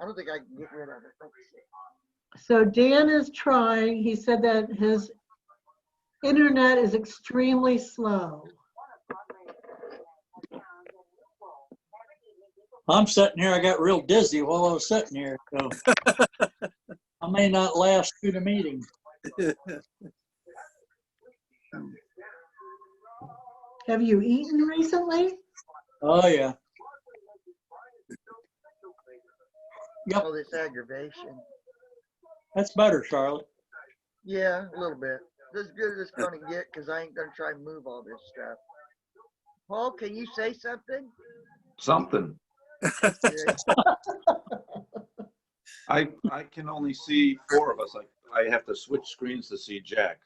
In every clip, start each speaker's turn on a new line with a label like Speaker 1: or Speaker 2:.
Speaker 1: I don't think I can get rid of it.
Speaker 2: So Dan is trying, he said that his internet is extremely slow.
Speaker 3: I'm sitting here, I got real dizzy while I was sitting here, so. I may not last through the meeting.
Speaker 2: Have you eaten recently?
Speaker 3: Oh, yeah.
Speaker 1: All this aggravation.
Speaker 3: That's better, Charlotte.
Speaker 1: Yeah, a little bit. As good as it's gonna get, cause I ain't gonna try and move all this stuff. Paul, can you say something?
Speaker 4: something.
Speaker 1: Yeah,
Speaker 4: I, I can only see four of us. I, I have to switch screens to see Jack.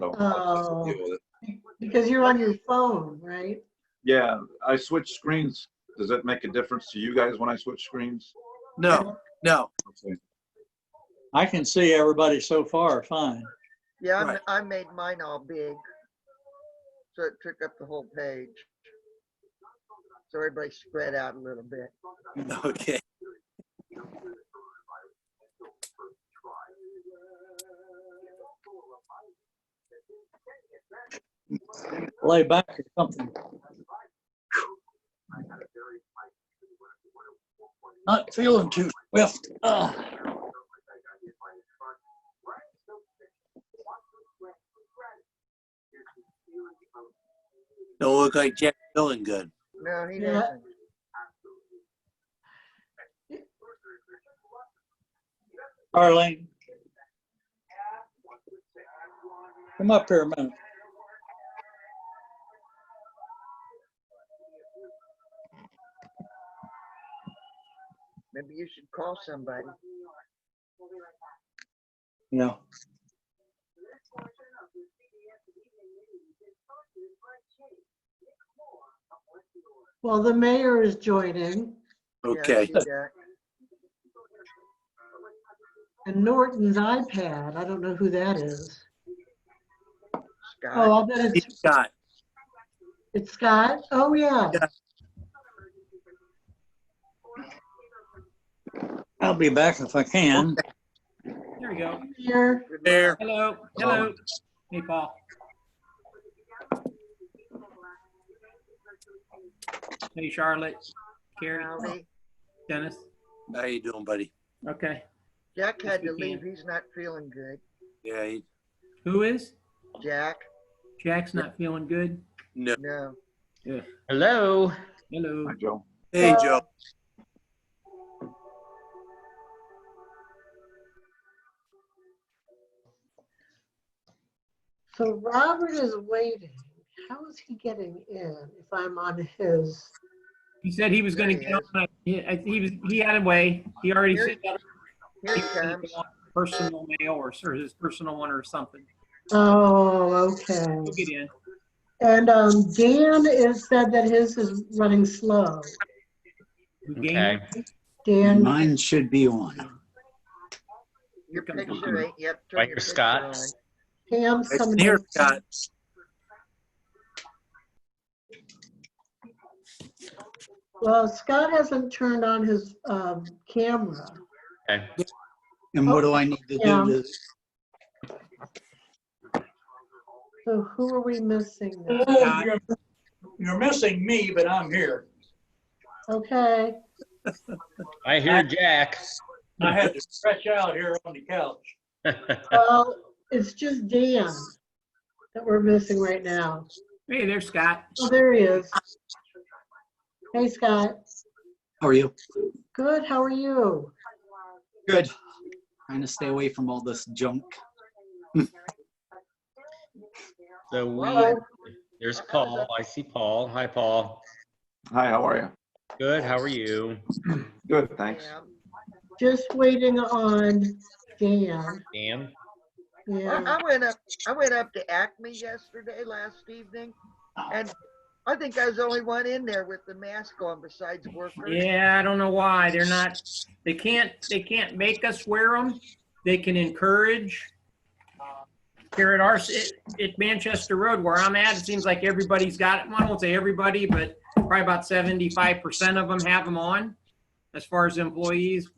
Speaker 4: So that's
Speaker 2: Oh.
Speaker 5: Oh.
Speaker 4: the deal with it.
Speaker 2: Because you're on your phone, right?
Speaker 4: Yeah, I switch screens. Does that make a difference to you guys when I switch screens?
Speaker 6: No, no.
Speaker 4: Okay.
Speaker 3: I can see everybody so far, fine.
Speaker 1: Yeah, I'm-
Speaker 6: Right.
Speaker 1: I made mine all big. So it took up the whole page. So everybody spread out a little bit.
Speaker 6: Okay.
Speaker 3: Lay back or something. Not feeling too swift. Ah.
Speaker 6: Don't look like Jack feeling good.
Speaker 1: No, he
Speaker 2: Yeah.
Speaker 1: doesn't.
Speaker 3: Arlene. Come up here a minute.
Speaker 1: Maybe you should call somebody.
Speaker 3: Yeah.
Speaker 2: Well, the mayor is joining
Speaker 1: Yeah,
Speaker 6: Okay.
Speaker 1: do that.
Speaker 2: and Norton's iPad, I don't know who that is. Oh,
Speaker 1: Scott,
Speaker 2: I'll bet it's,
Speaker 6: Scott,
Speaker 2: it's Scott. Oh, yeah.
Speaker 3: I'll be back if I can.
Speaker 5: There we go.
Speaker 2: Here,
Speaker 1: good
Speaker 6: there.
Speaker 5: Hello, hello. Hey, Paul. Hey, Charlotte, Carrie,
Speaker 1: luck, Rowdy.
Speaker 5: Dennis.
Speaker 6: How you doing, buddy?
Speaker 5: Okay.
Speaker 1: Jack
Speaker 5: Yes,
Speaker 1: had
Speaker 5: we
Speaker 1: to leave.
Speaker 5: can.
Speaker 1: He's not feeling good.
Speaker 6: Yeah, he-
Speaker 5: Who is?
Speaker 1: Jack,
Speaker 5: Jack's not feeling good.
Speaker 6: no.
Speaker 1: no.
Speaker 5: Hello. Hello.
Speaker 4: Hi, Joe.
Speaker 6: Hey, Joe.
Speaker 2: so Robert is waiting. How is he getting in if I'm on his?
Speaker 5: He said he was gonna
Speaker 1: There he
Speaker 5: get on. my- He, I- he was, he had a way. He already
Speaker 1: Here-
Speaker 5: sent out
Speaker 1: Here he comes.
Speaker 5: a personal mail or, or his personal one or something.
Speaker 2: Oh, okay.
Speaker 5: He'll get in.
Speaker 2: And um, Dan is said that his is running slow.
Speaker 5: Who
Speaker 7: Okay,
Speaker 5: gained-
Speaker 2: Dan,
Speaker 8: Mine should be on.
Speaker 1: Your
Speaker 5: Here comes
Speaker 1: picture ain't, yep. turn
Speaker 7: Right
Speaker 1: your
Speaker 7: here,
Speaker 1: picture
Speaker 7: Scott.
Speaker 1: on.
Speaker 2: Pam's
Speaker 6: I can
Speaker 2: coming.
Speaker 6: hear
Speaker 2: in.
Speaker 6: Scott.
Speaker 2: Well, Scott hasn't turned on his um, camera.
Speaker 7: okay.
Speaker 8: And what do I need to
Speaker 2: Yeah.
Speaker 8: do to,
Speaker 2: So who are we missing? now?
Speaker 3: You're you're missing me, but I'm here.
Speaker 2: Okay,
Speaker 7: I hear Jack.
Speaker 3: I had to stretch out here on the couch.
Speaker 2: well, it's just Dan that we're missing right now.
Speaker 5: Hey, there's Scott.
Speaker 2: Oh, there he is. Hey, Scott.
Speaker 8: how are you?
Speaker 2: Good, how are you?
Speaker 8: Good. Trying to stay away from all this junk.
Speaker 7: So we,
Speaker 2: Hello.
Speaker 7: there's Paul. I see Paul. Hi, Paul.
Speaker 4: Hi, how are you?
Speaker 7: Good, how are you?
Speaker 4: Good, thanks.
Speaker 1: Yeah.
Speaker 2: Just waiting on Dan.
Speaker 7: Dan?
Speaker 2: Yeah.
Speaker 1: I I went up, I went up to Acme yesterday, last evening, and I think I was the only one in there with the mask on besides workers.
Speaker 5: Yeah, I don't know why. They're not, they can't, they can't make us wear them. They can encourage. Here at our, at- at Manchester Road where I'm at, it seems like everybody's got, it. Well, I won't say everybody, but probably about seventy-five percent of them have them on as far as employees.